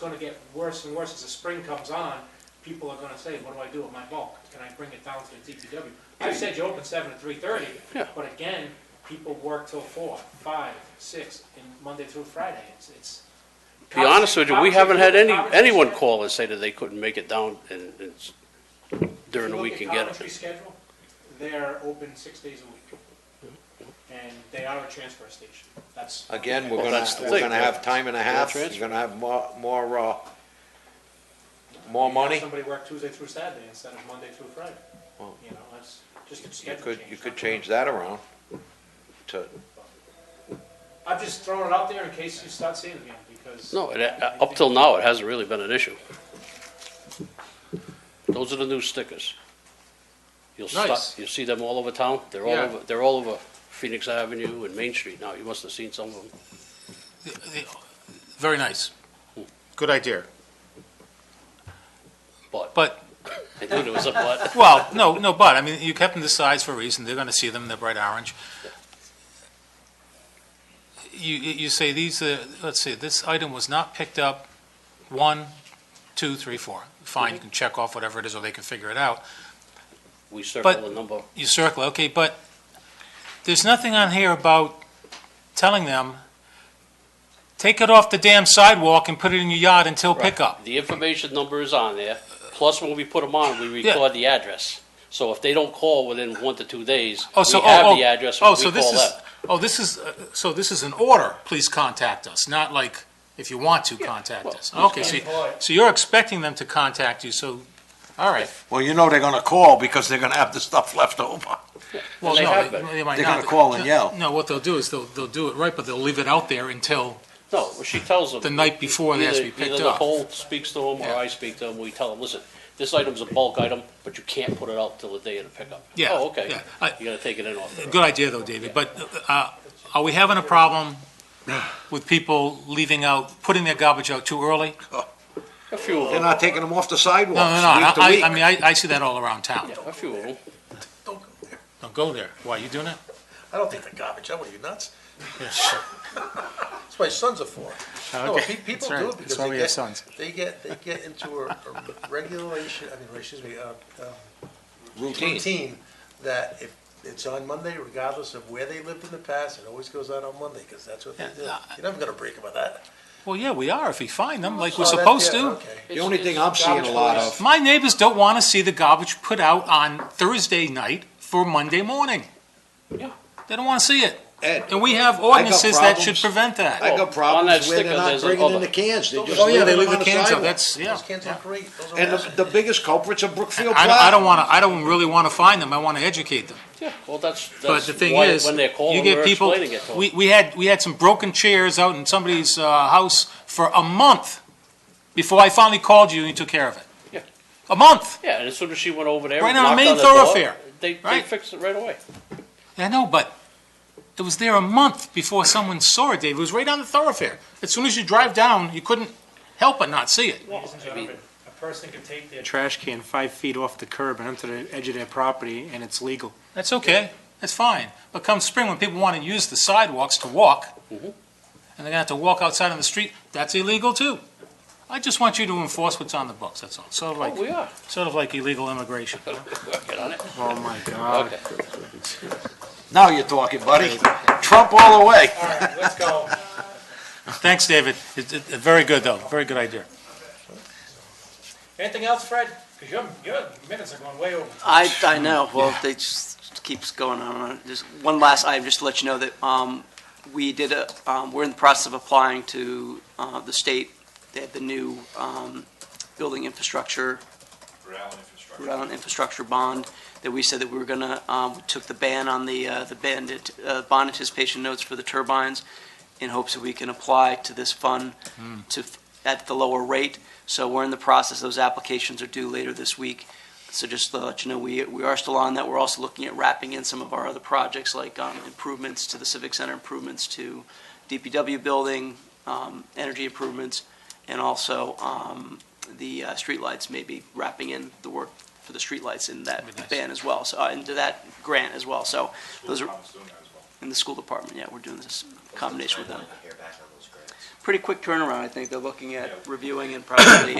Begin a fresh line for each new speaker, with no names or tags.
gonna get worse and worse as the spring comes on, people are gonna say, what do I do with my bulk? Can I bring it down to the DPW? I said you open seven to three thirty,
Yeah.
but again, people work till four, five, six, and Monday through Friday, it's, it's.
Be honest with you, we
College-
haven't had any,
college-
anyone call and say that they couldn't make it down and, and s- during the week and get
If you
it.
look at Coventry's schedule, they're open six days a week. And they are a transfer station, that's.
Again, we're
Well,
gonna,
that's the
we're
thing,
gonna
yeah.
have time and a half,
That's
you're
it.
gonna have more, more, uh, more
You have
money.
Somebody work Tuesday through Saturday instead of Monday through Friday,
Well,
you know, that's just a
You
schedule
could,
change.
you could change that around to,
I'm just throwing it out there in case you start seeing it again, because.
No, it, uh, up till now, it hasn't really been an issue. Those are the new stickers. You'll stop,
Nice.
you'll see them all over town. They're all
Yeah.
over, they're all over Phoenix Avenue and Main Street now. You must have seen some of them.
The- the- Very nice. Good idea.
But
But,
I knew there was a but.
well, no, no, but, I mean, you kept them the size for a reason. They're going to see them, they're bright orange. You, you you say these, uh, let's see, this item was not picked up, one, two, three, four. Fine, you can check off whatever it is, or they can figure it out.
We circle
But-
the number.
You circle, okay, but there's nothing on here about telling them, take it off the damn sidewalk and put it in your yard until pickup.
The information number is on there, plus when we put them on, we
Yeah.
record the address. So if they don't call within one to two days,
Oh,
we
so, oh,
have the
oh,
address, we
oh, so
call
this is-
that.
Oh, this is, uh, so this is an order, please contact us, not like, if you want to, contact
well,
us. Okay, so, you- so you're expecting them to contact you, so, all right.
well, you know they're gonna call because they're gonna have the stuff left over.
Well,
they
no,
have been.
they might
They're
not.
gonna call and
No,
yell.
No, what they'll do is they'll, they'll do it right, but they'll leave it out there until,
No, well, she tells them.
The night before they
either-
has to be picked
Either
up.
Nicole speaks to them, or
Yeah.
I speak to them, we tell them, listen, this item's a bulk item, but you can't put it out till the day of the pickup.
Yeah,
Oh, okay,
yeah. I-
you gotta take it in off the road.
good idea though, David, but, uh, are we having a problem with people leaving out, putting their garbage out too early?
A few of
They're
them,
not taking them off Oh, the sidewalks,
No, no, no, I,
week to
I-
week.
I mean, I, I see that all around town.
yeah, a few of them.
Don't go there. Why, you doing it?
I don't think they're garbage, are you nuts? That's why sons are for. No,
Oh, Okay,
pe- people
that's right.
do it
That's
because
why
they
we have
get-
sons.
They get, they get into a a regulation, I mean, excuse me, uh, um,
Routine.
routine that if it's on Monday, regardless of where they lived in the past, it always goes out on Monday, because that's what they
Yeah,
do.
uh,
You're never gonna break about that.
Well, yeah, we are if we find them, like we're
Oh, that-
supposed
yeah,
to.
okay.
The only thing I'm seeing a lot of,
My neighbors don't want to see the garbage put out on Thursday night for Monday morning.
Yeah.
They don't want to see it.
Ed,
And we have ordinances that should
problems.
prevent
Well,
I
that.
got
on that
problems where
sticker,
they're
there's
not
a
bringing in
other.
the cans, they just
Oh, yeah,
leave
they
them
leave
on
the
the
cans out,
sidewalk.
that's, yeah.
Those cans look great, those are
And
rad.
the, the biggest culprits are Brookfield
I don't, I don't
Plaza.
want to, I don't really want to find them. I want to educate them.
Yeah, well, that's,
But
that's
the thing
why,
is,
when they're
you
calling,
get
we're
people,
explaining it to them.
we, we had, we had some broken chairs out in somebody's, uh, house for a month before I finally called you and you took care of it.
Yeah.
A month.
Yeah, and as soon as she went over there
Right
and
on the
knocked
main
on the door,
thoroughfare,
they, they
right?
fixed it right away.
I know, but it was there a month before someone saw it, Dave. It was right on the thoroughfare. As soon as you drive down, you couldn't help but not see it.
Ladies and gentlemen, a person can take their
trash can five feet off the curb and onto the edge of their property, and it's legal.
That's okay. That's fine. But come spring, when people want to use the sidewalks to walk,
Mhm.
and they're gonna have to walk outside on the street, that's illegal too. I just want you to enforce what's on the books, that's all. Sort of
Oh, we
like,
are,
sort of like illegal immigration. you know?
working on it,
Oh, my God.
okay.
Now you're talking, buddy. Trump all the way.
All right, let's go.
Thanks, David. It- it- Very good, though. Very good idea.
Anything else, Fred? Because your, your minutes are going way over.
I, I know, well, it just keeps going on. and on. Just one last item, just to let you know that um, we did, a- um, we're in the process of applying to uh, the state. They have the new um, building infrastructure. Rhode Island infrastructure bond that we said that we were going to, took the ban on the, uh, the band, uh, bond anticipation notes for the turbines in hopes that we can apply to this fund to, f- at the lower rate. So we're in the process, those applications are due later this week. So just to let you know, we, we are still on that. We're also looking at wrapping in some of our other projects, like um, improvements to the Civic Center, improvements to DPW building, um, energy improvements, and also um, the uh, streetlights, maybe wrapping in the work for the streetlights in that
That'd be nice.
ban as well, so, uh, into that grant as well. So those are, in the school department, yeah, we're doing this combination with them. pretty quick turnaround, I think. They're looking at reviewing and probably uh,